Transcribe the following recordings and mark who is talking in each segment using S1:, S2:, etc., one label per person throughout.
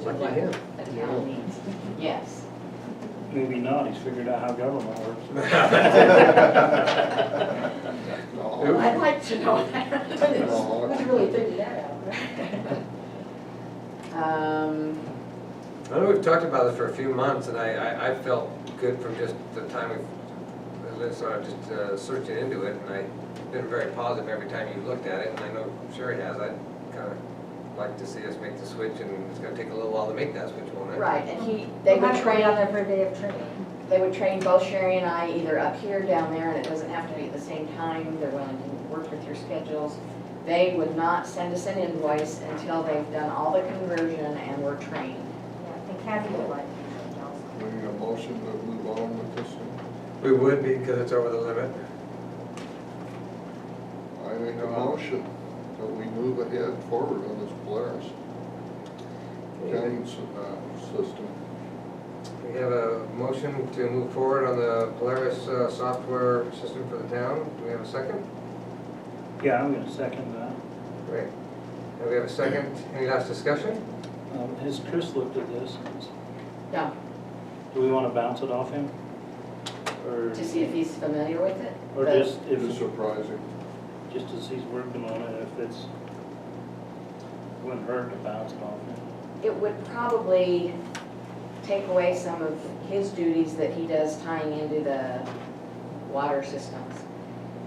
S1: Lucky
S2: what
S1: him.
S2: the town needs. Yes.
S3: Maybe not, he's figured out how government works.
S2: I'd like to know that.
S1: No.
S2: Who's really figured that out? Um,
S4: I know we've talked about this for a few months, and I, I, I felt good from just the time we've, uh, sort of just uh, searching into it, and I've been very positive every time you looked at it, and I know Sherry has, I'd kinda like to see us make the switch, and it's gonna take a little while to make that switch, won't it?
S2: right, and he, they would train
S5: on every day of training.
S2: They would train both Sherry and I either up here, down there, and it doesn't have to be at the same time, they're willing to work with your schedules. They would not send us an invoice until they've done all the conversion and we're trained.
S5: Yeah, and Kathy would like to train
S6: We
S5: also.
S6: need a motion to move on with this one.
S4: We would be, because it's over the limit.
S6: I make a motion that we move ahead forward on this Polaris counting s- uh, system.
S4: We have a motion to move forward on the Polaris uh, software system for the town. Do we have a second?
S3: Yeah, I'm gonna second that.
S4: Great. And we have a second. Any last discussion?
S3: Um, Has Chris looked at this?
S2: No,
S3: Do we wanna bounce it off him? Or,
S2: to see if he's familiar with it.
S3: or
S2: but-
S3: just, if,
S6: It's surprising.
S3: just as he's working on it, if it's, wouldn't hurt to bounce it off him.
S2: it would probably take away some of his duties that he does tying into the water systems.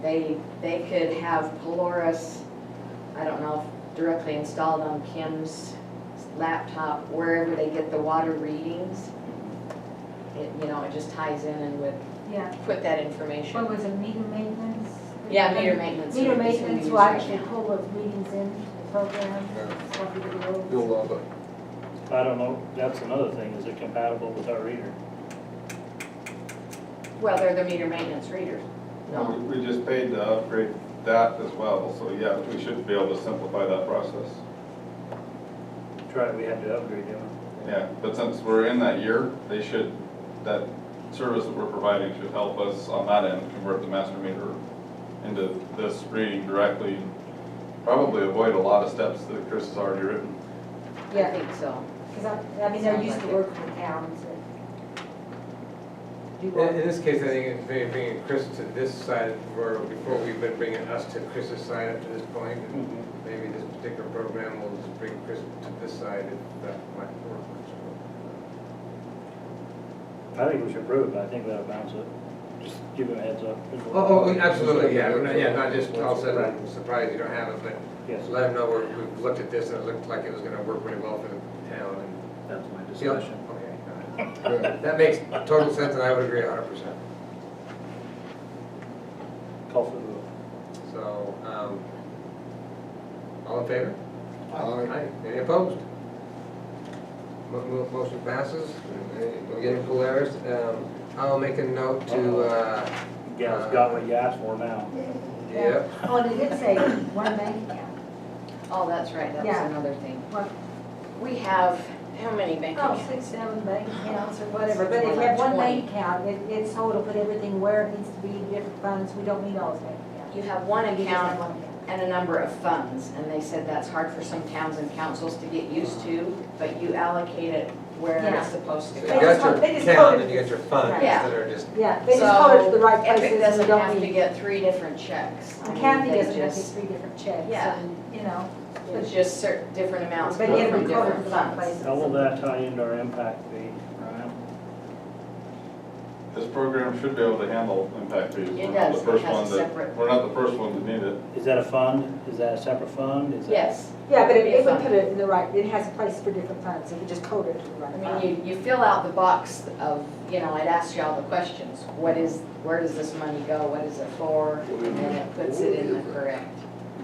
S2: They, they could have Polaris, I don't know, if directly installed on Kim's laptop, wherever they get the water readings. It, you know, it just ties in and would
S5: Yeah,
S2: put that information.
S5: what was it, meter maintenance?
S2: Yeah, meter maintenance.
S5: Meter
S2: is what we
S5: maintenance
S2: use
S5: will
S2: right
S5: actually
S2: now.
S5: pull those readings in to the program,
S6: Yeah.
S5: stuff we do.
S6: You'll love it.
S3: I don't know, that's another thing, is it compatible with our reader?
S2: Well, they're the meter maintenance readers. No,
S7: We we just paid to upgrade that as well, so yeah, we should be able to simplify that process.
S3: Try, we had to upgrade him.
S7: Yeah, but since we're in that year, they should, that service that we're providing should help us on that end, convert the master meter into this reading directly. Probably avoid a lot of steps that Chris has already written.
S2: I
S5: Yeah,
S2: think so.
S5: because I, I mean, they're used to working with towns and do
S4: In in
S5: work.
S4: this case, I think it's maybe bringing Chris to this side, where before we've been bringing us to Chris's side up to this point, and
S3: Mm-hmm.
S4: maybe this particular program will just bring Chris to this side, if that might work.
S3: I think we should approve it, but I think we ought to bounce it. Just give him a heads up.
S4: Oh, Oh, oh, absolutely, yeah, We're not- yeah, not just all of a sudden surprised you don't have it, but
S3: Yes,
S4: let them know we're- we've looked at this, and it looked like it was gonna work really well for the town, and
S3: that's my
S4: Yeah,
S3: discussion.
S4: okay.
S6: Yeah.
S4: That makes total sense, and I would agree a hundred percent.
S3: Call for the vote.
S4: So, um, all in favor?
S6: Aye.
S4: Any opposed? Mo- mo- Motion passes. We're getting Polaris. Um, I'll make a note to, uh,
S3: Gal's got what you asked for now.
S4: yep,
S5: Oh, and it did say one bank account,
S2: Oh, that's right, that was
S5: Yeah.
S2: another thing.
S5: one,
S2: We have, how many bank
S5: oh,
S2: accounts?
S5: six, seven bank accounts or whatever, but if you have one bank account, it, it's total, put everything where it needs to be, different funds, we don't need all those bank accounts.
S2: You have one
S5: We just have
S2: account
S5: one account.
S2: and a number of funds, and they said that's hard for some towns and councils to get used to, but you allocate it where
S5: Yeah.
S2: it's supposed to
S4: so you
S2: go.
S4: got your account and you got your funds that are just,
S5: Yeah, they just call it to the right
S2: So,
S5: places.
S2: Epic
S5: we
S2: doesn't
S5: don't
S2: have to
S5: need-
S2: get three different checks. I mean,
S5: Kathy
S2: they
S5: doesn't have to get
S2: just-
S5: three different checks,
S2: Yeah.
S5: and, you know,
S2: It's just certain, different amounts
S5: But
S2: come
S5: every
S2: from
S5: quarter
S2: different
S5: for that
S2: funds.
S5: place.
S3: How will that tie into our impact fee, Ryan?
S7: This program should be able to handle impact fees.
S2: It
S7: We're not
S2: does. It
S7: the first
S2: has a
S7: one that-
S2: separate-
S7: We're not the first one to need it.
S3: Is that a fund? Is that a separate fund? Is that-
S2: Yes,
S5: yeah, but
S2: It'd
S5: it
S2: be
S5: it would
S2: fine.
S5: put it in the right, it has a place for different funds, if you just code it to the right
S2: I
S5: fund.
S2: mean, you, you fill out the box of, you know, it asks you all the questions. What is, where does this money go? What is it for? And then it puts it in the correct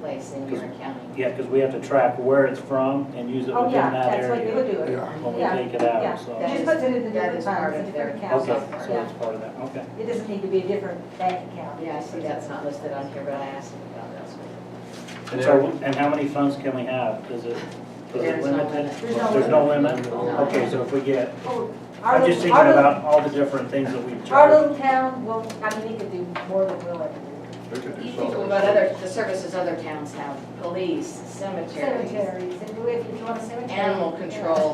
S2: place in your accounting.
S3: Yeah, because we have to track where it's from and use it
S5: Oh,
S3: within
S5: yeah,
S3: that
S5: that's what you would
S3: area
S5: do it.
S6: Yeah.
S3: when we
S5: yeah,
S3: take it
S5: yeah.
S3: out, so.
S5: It just puts it in the
S2: That
S5: different
S2: is part
S5: funds,
S2: of
S5: the different
S2: their-
S5: accounts,
S3: Okay,
S2: Yeah.
S3: so
S5: yeah.
S3: it's part of that, okay.
S5: It doesn't need to be a different bank account.
S2: Yeah, I see that's not listed on here, but I asked him about that. so-
S3: And so, and how many funds can we have? Is it, is
S2: There
S3: it
S2: is no
S3: limited?
S2: limit.
S5: There's no
S3: There's no limit?
S2: No.
S3: Okay, so if we get,
S5: Oh, our
S3: I'm just
S5: little-
S3: thinking
S5: our little-
S3: about all the different things that we've
S5: Our
S3: charged.
S5: little town, well, I mean, it could do more than we'll ever do.
S6: They could do
S2: You think
S6: something.
S2: about other, the services other towns have, police, cemeteries,
S5: Cemeteries, and if you want a cemetery.
S2: animal
S5: yeah.
S2: control,